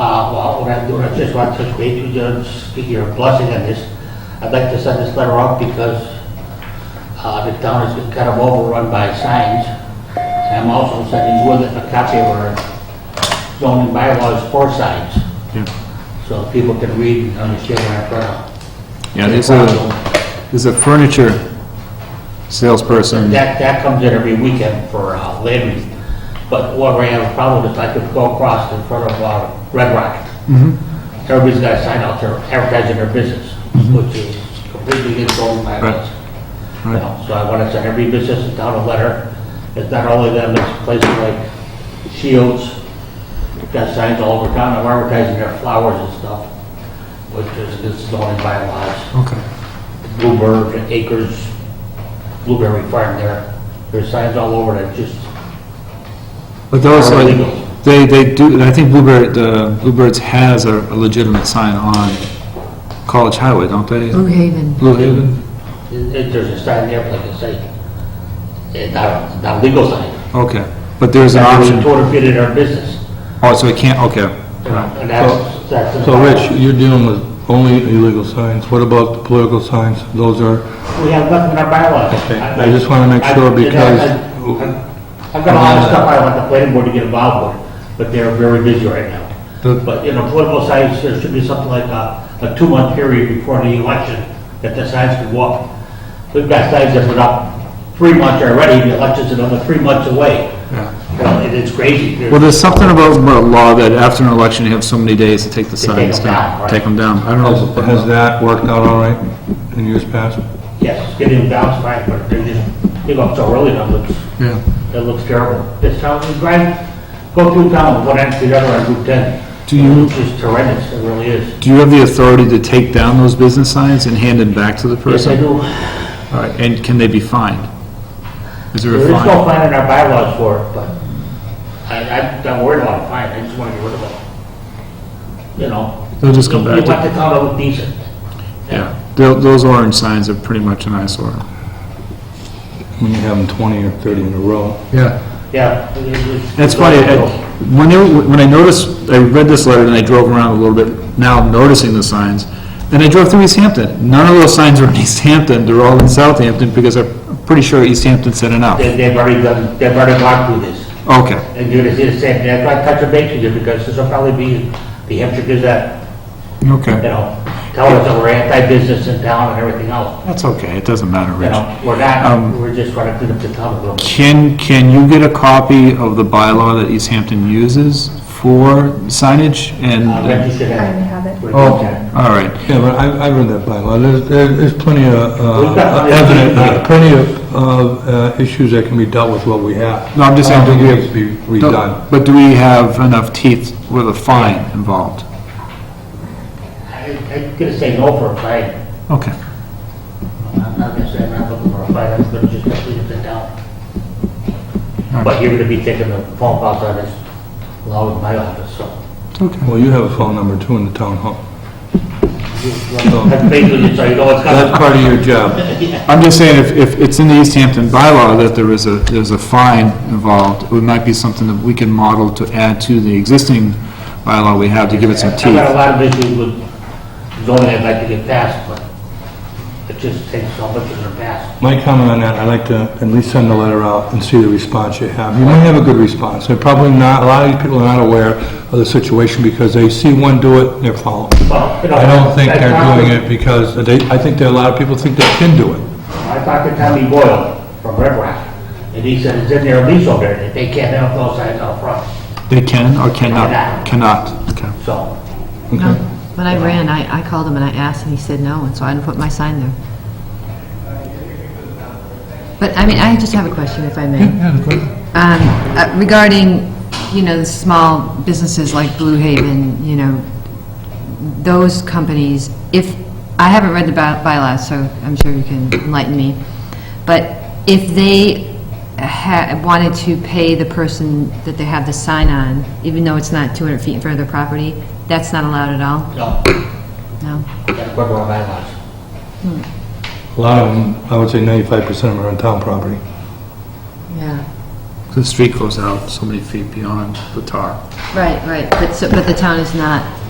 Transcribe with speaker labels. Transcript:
Speaker 1: Bob Waffle, and Uh, I'm doing it just want to touch base with you, and just get your blessing on this. I'd like to send this letter out because uh, the town is kind of overrun by signs. And I'm also sending with it a copy of our zoning bylaws for signs,
Speaker 2: Yeah,
Speaker 1: so people can read and understand what I'm trying
Speaker 2: Yeah, there's a, there's a furniture salesperson.
Speaker 1: That, that comes in every weekend for uh, Landry's. But what I have a problem is I could go across in front of uh, Red Rock.
Speaker 2: Mm-hmm.
Speaker 1: Everybody's got a sign out there advertising their business, which is completely against all my
Speaker 2: Right.
Speaker 1: laws. You
Speaker 2: Right.
Speaker 1: know, So I want to send every business in town a letter. It's not only them, it's places like Shields, got signs all over town, I'm advertising their flowers and stuff, which is against zoning bylaws.
Speaker 2: Okay.
Speaker 1: Bluebird Acres Blueberry Farm there. There's signs all over that just,
Speaker 2: But those,
Speaker 1: Or
Speaker 2: like,
Speaker 1: illegal.
Speaker 2: they, they do, and I think Bluebird, the Bluebirds has a a legitimate sign on College Highway, don't they?
Speaker 3: Blue Haven.
Speaker 2: Blue Haven?
Speaker 1: it- it- there's a sign there, like I say, it's not, not legal sign.
Speaker 2: Okay, but there's an
Speaker 1: That's
Speaker 2: option,
Speaker 1: Toward fit in our business.
Speaker 2: oh, so it can't, okay.
Speaker 1: you know, And that's, that's.
Speaker 4: So Rich, you're dealing with only illegal signs. What about the political signs? Those are,
Speaker 1: We have nothing in our bylaws.
Speaker 4: Okay, I just wanna make sure
Speaker 1: I- I-
Speaker 4: because-
Speaker 1: I- I've got a lot of stuff I want the planning board to get involved with, but they're very busy right now.
Speaker 4: The-
Speaker 1: But, you know, political signs, there should be something like a, a two-month period before the election that the signs can walk. We've got signs that went up three months already, the election's another three months away. You know, it is crazy. There's-
Speaker 2: Well, there's something about, about law that after an election, you have so many days to take the
Speaker 1: To take
Speaker 2: signs
Speaker 1: them down,
Speaker 2: down.
Speaker 1: right.
Speaker 2: Take them down. I don't
Speaker 4: has has
Speaker 2: know.
Speaker 4: that worked out all right in years past?
Speaker 1: Yes, it's getting bounced back, but they're just, they go up so early now, it's,
Speaker 2: Yeah.
Speaker 1: It looks terrible. This town, we drive, go through town, one end to the other on Route 10.
Speaker 2: Do you-
Speaker 1: It's just horrendous, it really is.
Speaker 2: Do you have the authority to take down those business signs and hand them back to the
Speaker 1: Yes, I
Speaker 2: person?
Speaker 1: do.
Speaker 2: All right, and can they be fined? Is there
Speaker 1: There
Speaker 2: a
Speaker 1: is no
Speaker 2: fine?
Speaker 1: fine in our bylaws for it, but I, I'm not worried about a fine, I just want to get rid of it. You know?
Speaker 2: They'll just come
Speaker 1: You-
Speaker 2: back
Speaker 1: You want
Speaker 2: to,
Speaker 1: the town to look decent.
Speaker 2: yeah. Tho- Those orange signs are pretty much an eyesore.
Speaker 4: When you have them 20 or 30 in a row?
Speaker 2: Yeah.
Speaker 1: Yeah. it- it's-
Speaker 2: That's funny, I- when they, were- when I noticed, I read this letter and I drove around a little bit, now I'm noticing the signs, and I drove through East Hampton. None of those signs are in East Hampton, they're all in Southampton, because I'm pretty sure East Hampton sent it out.
Speaker 1: They- They've already done, they've already gone through this.
Speaker 2: Okay.
Speaker 1: And you're going to see the same, that's why I touch a base with you, because this will probably be the Hampshire Gazette. you
Speaker 2: Okay,
Speaker 1: know, tell us that we're anti-business in town and everything else.
Speaker 2: that's okay, it doesn't matter,
Speaker 1: You
Speaker 2: Rich.
Speaker 1: know, we're not,
Speaker 2: Um,
Speaker 1: we're just trying to clean up the town a little bit.
Speaker 2: Can, can you get a copy of the bylaw that East Hampton uses for signage and?
Speaker 1: Uh, Reggie should
Speaker 5: I
Speaker 1: have.
Speaker 5: have it.
Speaker 4: Oh.
Speaker 2: All right,
Speaker 4: Yeah, but I, I read that bylaw. There's, there's there's plenty of,
Speaker 1: We've got
Speaker 4: uh,
Speaker 1: plenty of
Speaker 4: evident-
Speaker 1: people.
Speaker 4: plenty of, of uh, issues that can be dealt with what we have.
Speaker 2: No, I'm just saying-
Speaker 4: I don't think we have to be redone.
Speaker 2: Um, but do we have enough teeth with a fine involved?
Speaker 1: I- I'm gonna say no for a fight.
Speaker 2: Okay.
Speaker 1: I'm not gonna say I'm not looking for a fight, I'm gonna just clean up the town. But you're gonna be taking the phone calls on this, along with my office, so.
Speaker 2: Okay.
Speaker 4: Well, you have a phone number too in the town hall.
Speaker 1: That's basically, so you know it's coming.
Speaker 4: That's part of your job.
Speaker 2: I'm just saying, if, if it's in the East Hampton bylaw that there is a, there's a fine involved, it might be something that we can model to add to the existing bylaw we have to give it some
Speaker 1: I've
Speaker 2: teeth.
Speaker 1: got a lot of issues with zoning I'd like to get passed, but it just takes so much of their past.
Speaker 4: My comment on that, I'd like to at least send the letter out and see the response you have. You may have a good response. They're probably not, a lot of these people are not aware of the situation because they see one do it, they're following.
Speaker 1: Well, you know,
Speaker 4: I don't think
Speaker 1: that's
Speaker 4: they're
Speaker 1: not-
Speaker 4: doing it because they, I think there are a lot of people think they can do it.
Speaker 1: I talked to Tommy Boyle from Red Rock, and he said it's in their lease over there, that they can't have those signs out front,
Speaker 2: They can or cannot? Cannot, okay.
Speaker 1: so.
Speaker 3: No, Um, when I ran, I, I called him and I asked, and he said no, and so I didn't put my sign there. But, I mean, I just have a question, if I may. Um, uh, Regarding, you know, the small businesses like Blue Haven, you know, those companies, if, I haven't read the by- bylaws, so I'm sure you can enlighten me, but if they ha- wanted to pay the person that they have the sign on, even though it's not 200 feet in front of their property, that's not allowed at all?
Speaker 1: No,
Speaker 3: No?
Speaker 1: that's what we're bylaws.
Speaker 4: A lot of them, I would say ninety-five percent of them are on town property.
Speaker 3: Yeah.
Speaker 2: the street goes out so many feet beyond the tar.
Speaker 3: Right, right, but so, but the town is not